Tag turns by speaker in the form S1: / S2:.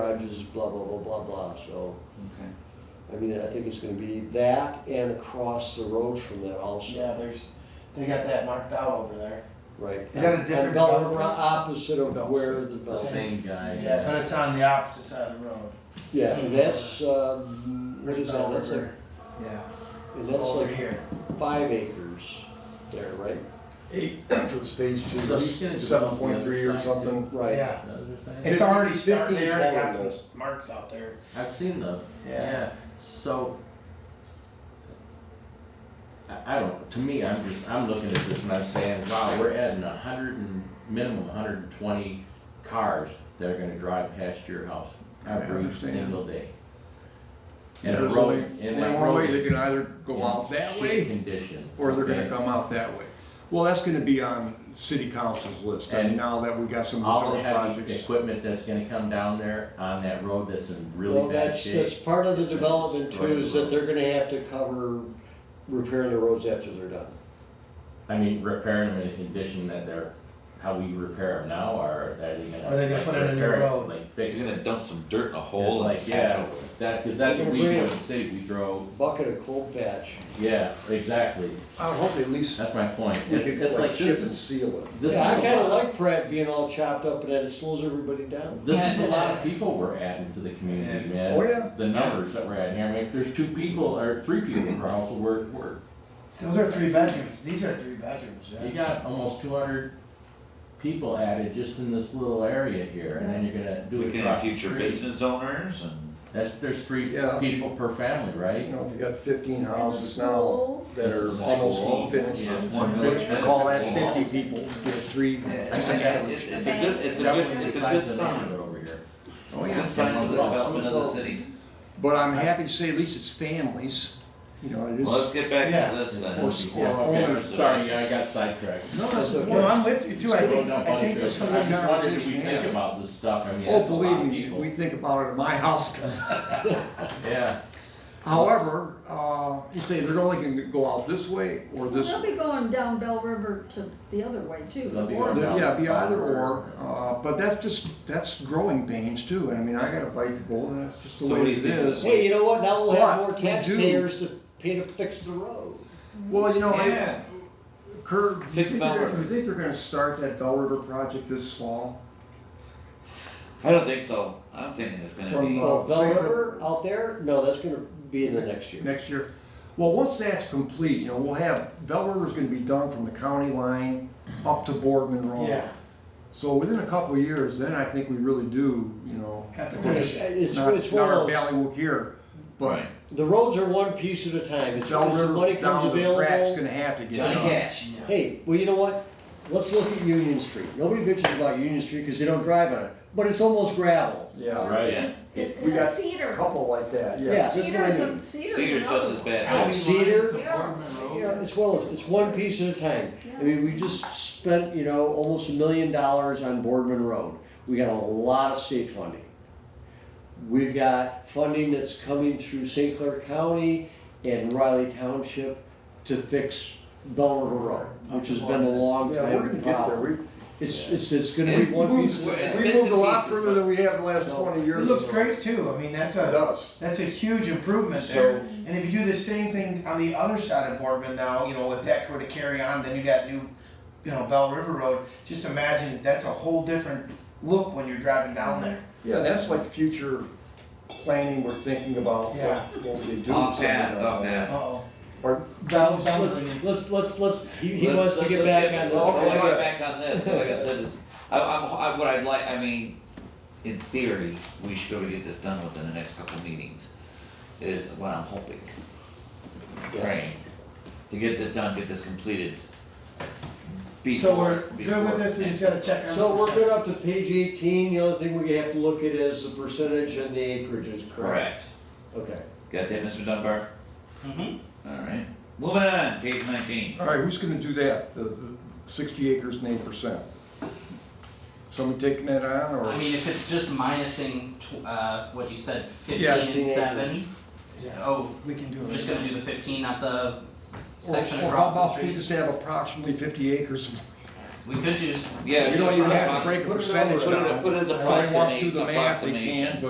S1: garages, blah, blah, blah, blah, blah, so.
S2: Okay.
S1: I mean, I think it's gonna be that and across the road from that
S3: Yeah,
S1: also,
S3: there's, they got that marked out over there.
S1: right?
S2: Is that a
S1: On
S2: different
S1: Bel-
S2: development?
S1: Opposite
S2: No,
S1: of where the,
S2: The
S1: Bel-
S2: same guy.
S3: Yeah, but it's on the opposite side of the road.
S1: yeah, and that's, um, what
S3: There's
S1: is that,
S3: Bell
S1: that's like,
S3: River.
S2: Yeah.
S1: and
S3: It's
S1: that's
S3: over
S1: like
S3: here.
S1: five acres there, right?
S4: eight for the stage
S2: So he's gonna
S4: two,
S2: do
S4: seven point three or
S2: something on the other
S4: something.
S1: Right,
S2: Is
S3: Yeah.
S2: that what you're saying?
S3: It's already started, they
S4: 15
S3: already got
S4: total.
S3: some marks out there.
S2: I've seen those.
S3: Yeah.
S2: So. I, I don't, to me, I'm just, I'm looking at this and I'm saying, wow, we're adding a hundred and, minimum hundred and twenty cars that are gonna drive past your house
S5: I
S2: every
S5: understand.
S2: single day. And a
S5: There's
S2: road,
S5: only,
S2: and
S5: only
S2: that
S5: one
S2: road
S5: way, they
S2: is
S5: can either go
S2: in
S5: out that
S2: shit
S5: way,
S2: Condition.
S5: or they're gonna
S2: okay?
S5: come out that way. Well, that's gonna be on city council's list, I
S2: And
S5: mean, now that we got some
S2: All the
S5: other
S2: heavy
S5: projects.
S2: equipment that's gonna come down there on that road that's in
S1: well,
S2: really bad
S1: that's, that's
S2: shape.
S1: part of the
S2: It's a
S1: development too,
S2: right
S1: is that
S2: road.
S1: they're gonna have to cover repairing the roads after they're done.
S2: I mean, repairing them in a condition that they're, how we repair them now, or are they gonna?
S3: Are they gonna
S2: like,
S3: put in a new
S2: repair it,
S3: road?
S2: Like
S6: You're
S2: fix it?
S6: gonna dump some dirt in a hole and
S2: Like, yeah, that, cause that's what we do in the city, we throw,
S1: Bucket of cold patch,
S2: yeah, exactly,
S4: I would hope at least
S2: that's my point.
S4: we
S2: It's,
S4: could
S2: it's
S4: like
S2: like
S4: chip
S2: this
S4: and
S2: is,
S4: seal it.
S2: this is
S1: yeah, I
S2: a
S1: kinda
S2: lot,
S1: like Pratt being all chopped up and that it slows everybody down.
S2: this is a lot of people we're adding to the community,
S3: Yes.
S2: man.
S4: Oh, yeah.
S2: The numbers that we're adding here, I mean, if there's two people or three people per household, we're, we're,
S3: So those are three bedrooms. These are three bedrooms,
S2: you
S3: yeah.
S2: got almost two hundred people added just in this little area here, and then you're gonna do it
S6: looking at
S2: across the
S6: future
S2: street.
S6: business owners and.
S2: That's, there's three
S4: Yeah.
S2: people per family, right?
S4: You know, if you got fifteen houses now
S7: School,
S4: that are
S6: It's small.
S4: almost finished,
S6: Yeah, it's one village
S4: you call that
S6: festival.
S4: fifty people, get three.
S2: I think that was-
S6: It's, it's a good, it's a
S2: that
S6: good,
S2: was
S6: it's a
S2: besides
S6: good
S2: the
S6: sign.
S2: neighborhood over here.
S6: It's a good sign for the development of the city.
S4: But I'm happy to say at least it's families, you know, it is.
S6: Well, let's get back
S3: Yeah.
S6: to this then.
S4: Or-
S2: Yeah,
S4: or
S2: okay,
S4: owners.
S2: sorry, yeah, I got sidetracked.
S4: No, that's okay.
S3: Well, I'm with you too. I think,
S2: Scroll down
S3: I think
S2: bunch
S3: there's
S2: of-
S3: some,
S2: I just wondered, do we
S4: conversation,
S2: think
S4: yeah.
S2: about this stuff, I mean,
S4: Oh,
S2: that's a lot
S4: believe
S2: of
S4: me, we
S2: people.
S4: think about it at my house. 'cause-
S2: Yeah,
S4: However, uh, you say they're only gonna go out this way or this.
S7: they'll be going down Bell River to the other way too.
S2: They'll be
S7: Or-
S2: going down.
S4: Yeah, be either or, uh, but that's just, that's growing pains too, and I mean, I gotta bite the bullet, that's just the
S6: So what do
S4: way
S6: you
S4: it
S6: think
S4: is.
S6: this-
S1: Hey, you know what, now we'll have
S4: But
S1: more
S4: we do-
S1: taxpayers to pay to fix the road.
S4: Well, you know, I-
S6: Yeah,
S4: Kurt, do you
S6: Fix
S4: think
S6: Bell
S4: they're,
S6: River.
S4: you think they're gonna start that Bell River project this fall?
S6: I don't think so. I'm thinking it's gonna
S4: From,
S6: be,
S4: uh,
S1: Well, Bell
S4: Safer-
S1: River out there, no, that's gonna be in the next year.
S4: Next year? Well, once that's complete, you know, we'll have, Bell River's gonna be done from the county line up to Boardman Road.
S3: yeah,
S4: So within a couple of years, then I think we really do, you know,
S3: got to
S1: It's,
S3: finish it.
S1: it's
S4: not,
S1: it's
S4: not
S1: one
S4: our
S1: of
S4: Valley
S1: those,
S4: Wook here, but
S6: Right.
S1: the roads are one piece at a time, it's
S4: Bell
S1: when the money comes
S4: River down to Pratt's
S1: available.
S4: gonna have to get
S6: Johnny
S4: done.
S6: Cash.
S1: Hey, well, you know what, let's look at Union Street, nobody bitches about Union Street, cause they don't drive on it, but it's almost gravel.
S4: Yeah,
S7: or
S2: right,
S7: it-
S6: yeah.
S7: it-
S4: We got
S7: Cedar.
S4: couple like
S1: yes.
S4: that,
S1: Yeah. that's what I
S7: Cedar's, a-
S1: mean.
S7: Cedar's.
S6: Cedars
S7: another
S6: just as
S7: one.
S1: uh,
S6: bad.
S1: Cedar,
S7: Yeah.
S1: Yeah, it's one, of- it's one piece at a time. I mean, we just spent, you know, almost a million dollars on Boardman Road. We got a lot of state funding. We've got funding that's coming through St. Clair County and Riley Township to fix Bell River Road, which has been a long
S4: Yeah, we're gonna
S1: time
S4: get there,
S1: problem.
S4: we,
S1: It's, it's, it's gonna be
S6: It's
S1: one piece.
S6: moved-
S1: at a time.
S6: It's
S4: we
S6: bits
S4: moved
S6: and
S4: a lot
S6: pieces,
S4: further than we have in the last
S1: No.
S4: twenty
S3: It
S4: years.
S3: looks
S4: ago.
S3: great too. I mean, that's
S4: It
S3: a,
S4: does.
S3: that's a huge improvement
S6: So-
S3: there. And if you do the same thing on the other side of Boardman now, you know, with that were to carry on, then you got new, you know, Bell River Road. Just imagine, that's a whole different look when you're driving down there.
S4: Yeah, that's like future planning, we're thinking about what,
S3: Yeah.
S4: what we could do.
S6: Off
S4: with
S6: path,
S4: something
S6: off
S4: like that.
S6: path.
S3: Uh-oh.
S4: Pardon?
S3: Bell,
S1: Let's,
S3: Bell River.
S1: let's- let's, let's, let's, he, he
S6: Let's-
S1: wants to
S6: let's-
S1: get
S6: let's
S1: back on.
S6: I wanna
S1: the-
S6: get back on this, 'cause like I said, it's, I, I'm, I, what I'd like, I mean, in theory, we should be able to get this done within the next couple of meetings, is what I'm hoping. Praying, to get this done, get this completed
S3: So
S6: before,
S3: we're good
S6: before
S3: with this, we just gotta check on.
S1: So
S3: the
S1: we're good
S3: percentage.
S1: up to page eighteen, the other thing we have to look at is the percentage and the acreages, correct?
S6: Correct,
S1: Okay.
S6: got that, Mr. Dunbar? Mm-hmm. Alright, moving on, page nineteen,
S4: All right, who's gonna do that, the, the sixty acres and eight percent? Somebody taking that on, or?
S8: I mean, if it's just minusing tw- uh, what you said, fifteen
S4: Yeah,
S8: and
S1: 15 acres.
S8: seven.
S3: Yeah,
S8: Oh,
S3: we can do it.
S8: we're just gonna do the fifteen, not the
S4: or-
S8: section
S4: or
S8: across
S4: how
S8: the
S4: about we
S8: street.
S4: just have approximately fifty acres of
S6: We
S9: We could use
S6: Yeah.
S4: You
S6: just
S4: don't even
S6: try
S4: have to
S6: approximate-
S4: break a percentage
S6: Put it-
S4: down.
S6: put it as a
S4: Somebody wants to do the math, they
S6: approximation.
S4: can't, but